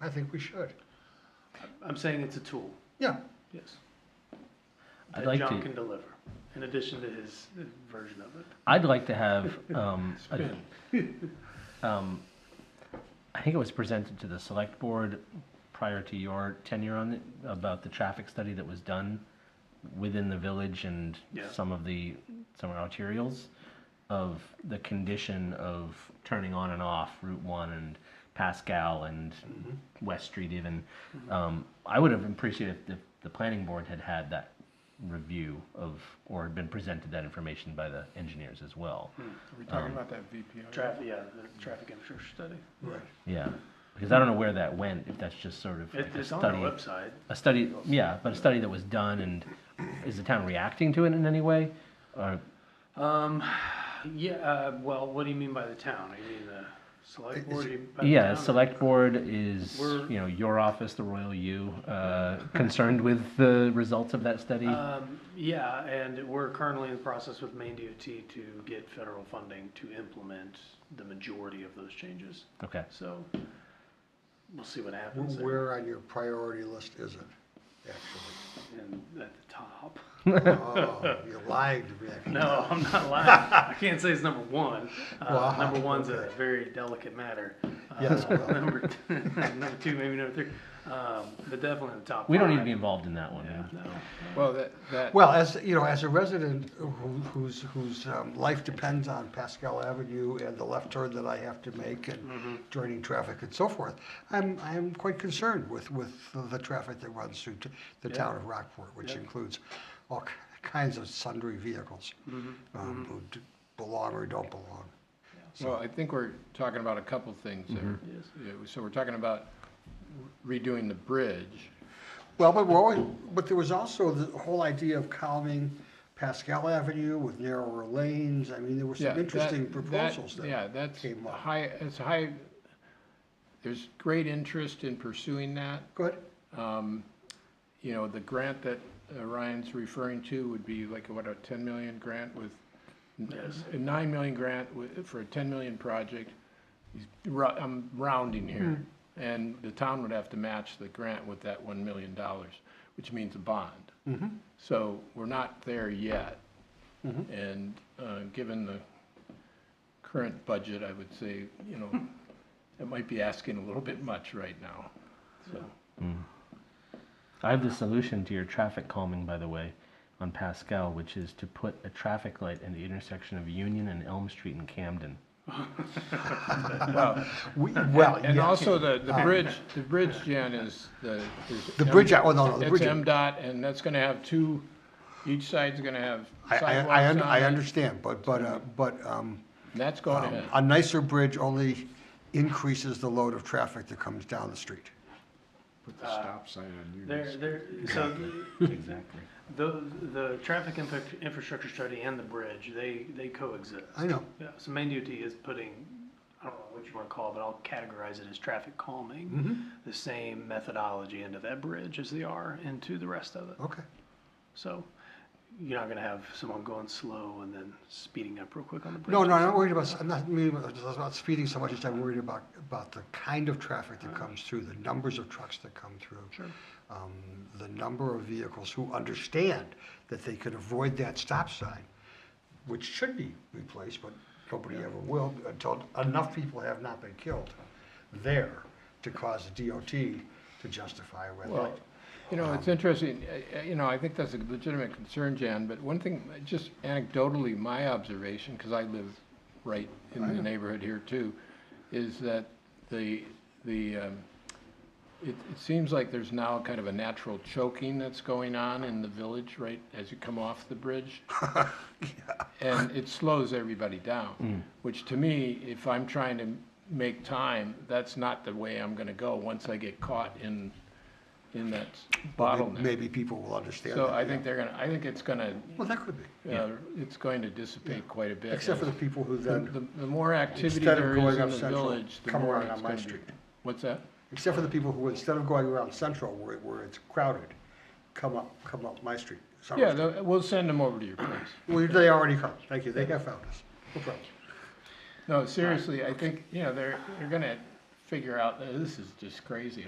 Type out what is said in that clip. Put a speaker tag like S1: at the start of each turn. S1: I think we should.
S2: I'm saying it's a tool,
S1: Yeah,
S2: yes.
S3: I'd
S2: That
S3: like
S2: John
S3: to-
S2: can deliver, in addition to his uh, version of it.
S3: I'd like to have, um, a, um, I think it was presented to the select board prior to your tenure on it, about the traffic study that was done within the village and
S2: Yeah.
S3: some of the, some arterials of the condition of turning on and off Route One and Pascal and
S2: Mm-hmm.
S3: West Street even. Um, I would have appreciated if the planning board had had that review of, or had been presented that information by the engineers as well.
S1: Mm-hmm.
S4: Are we talking about that VPO?
S2: Traffic, yeah, the traffic infrastructure study.
S1: right.
S3: Yeah, because I don't know where that went, if that's just sort of
S2: It,
S3: like a
S2: it's on our
S3: study.
S2: website.
S3: A study, yeah, but a study that was done and is the town reacting to it in any way? Uh, Or,
S2: Um, yeah, uh, well, what do you mean by the town? You mean the select board? You mean by the
S3: yeah,
S2: town?
S3: select board is,
S2: We're-
S3: you know, your office, the royal you, uh, concerned with the results of that study?
S2: Um, yeah, and we're currently in the process with Maine DOT to get federal funding to implement the majority of those changes.
S3: Okay,
S2: So we'll see what happens.
S1: Wh-
S2: there.
S1: Where on your priority list is it, actually?
S2: And at the top.
S1: Oh, you're lying to me. actually.
S2: No, I'm not lying. I can't say it's number one. Uh,
S1: Wow,
S2: number one's a
S1: okay.
S2: very delicate matter. Uh,
S1: Yes, well.
S2: number, number two, maybe number three, um, but definitely the top.
S3: we don't need to
S2: five.
S3: be involved in that one.
S2: Yeah,
S3: man.
S2: no.
S4: Well, that, that,
S1: Well, as, you know, as a resident who, whose, whose um, life depends on Pascal Avenue and the left turn that I have to make and joining traffic and so forth, I'm, I'm quite concerned with, with the traffic that runs through t- the town of Rockport, which includes all k- kinds of sundry vehicles um, who d- belong or don't belong.
S4: well, I think we're talking about a couple things there.
S2: Yes.
S4: Yeah, So we're talking about redoing the bridge.
S1: Well, but we're always, but there was also the whole idea of calming Pascal Avenue with narrower lanes. I mean, there were
S4: Yeah,
S1: some
S4: that-
S1: interesting
S4: that-
S1: proposals there.
S4: Yeah, that's
S1: came up.
S4: high, it's high, there's great interest in pursuing that.
S1: Good.
S4: You know, the grant that uh, Ryan's referring to would be like, what, a ten million grant with, a nine million grant wi- for a ten million project. He's ru- I'm rounding here, and the town would have to match the grant with that one million dollars, which means a bond. So we're not there yet. And, uh, given the current budget, I would say, you know, it might be asking a little bit much right now, so.
S3: I have the solution to your traffic calming, by the way, on Pascal, which is to put a traffic light in the intersection of Union and Elm Street in Camden.
S1: We, well,
S4: And
S1: yeah.
S4: also the, the bridge, the bridge, Jan, is the. is
S1: The
S4: M-
S1: bridge, oh, no, no, the
S4: That's
S1: bridge.
S4: MDOT, and that's gonna have two, each side's gonna have
S1: I, I,
S4: sidewalks
S1: I, un-
S4: on
S1: I
S4: it, Oh,
S1: understand, Um, but, but, uh, but, um,
S4: and That's going ahead.
S1: a nicer bridge only increases the load of traffic that comes down the street.
S5: Put the stop sign on Union
S2: There,
S5: Street.
S2: there, so
S3: Exactly.
S2: the, the traffic infra- infrastructure study and the bridge, they, they coexist.
S1: I know.
S2: Yeah, so Maine DOT is putting, I don't know what you wanna call it, but I'll categorize it as traffic calming. The same methodology into that bridge as they are into the rest of it.
S1: Okay.
S2: So you're not gonna have someone going slow and then speeding up real quick on the bridge.
S1: No, no, I'm not worried about, I'm not, meaning about- it's about speeding so much as I'm worried about, about the kind of traffic
S4: Uh-huh.
S1: that comes through, the numbers of trucks that come through.
S2: Sure.
S1: Um, the number of vehicles who understand that they could avoid that stop sign, which should be replaced, but nobody ever will until enough people have not been killed there to cause the DOT to justify a red
S4: Well,
S1: light.
S4: you know, it's interesting, uh, uh, you know, I think that's a legitimate concern, Jan, but one thing, uh, just anecdotally, my observation, because I live right in the neighborhood here too, is that the, the, um, it, it seems like there's now kind of a natural choking that's going on in the village, right, as you come off the bridge. And it slows everybody down, which to me, if I'm trying to make time, that's not the way I'm gonna go once I get caught in, in that bottleneck.
S1: Maybe people will understand
S4: So
S1: that,
S4: I
S1: yeah.
S4: think they're gonna, I think it's gonna,
S1: Well, that could be,
S4: uh, it's going to dissipate quite a bit.
S1: except for
S4: as-
S1: the people who
S4: The,
S1: then,
S4: the- the more activity
S1: Instead of
S4: there
S1: going
S4: is in
S1: up
S4: the
S1: Central,
S4: village, the
S1: come
S4: more
S1: around
S4: it's
S1: on my
S4: gonna be.
S1: street.
S4: What's that?
S1: except for the people who, instead of going around Central where, where it's crowded, come up, come up my street. Summer
S4: Yeah,
S1: Street.
S4: the- we'll send them over to your place.
S1: Well, they already come, thank you, they have found us, no problem.
S4: No, seriously, I think, you know, they're, they're gonna figure out, this is just crazy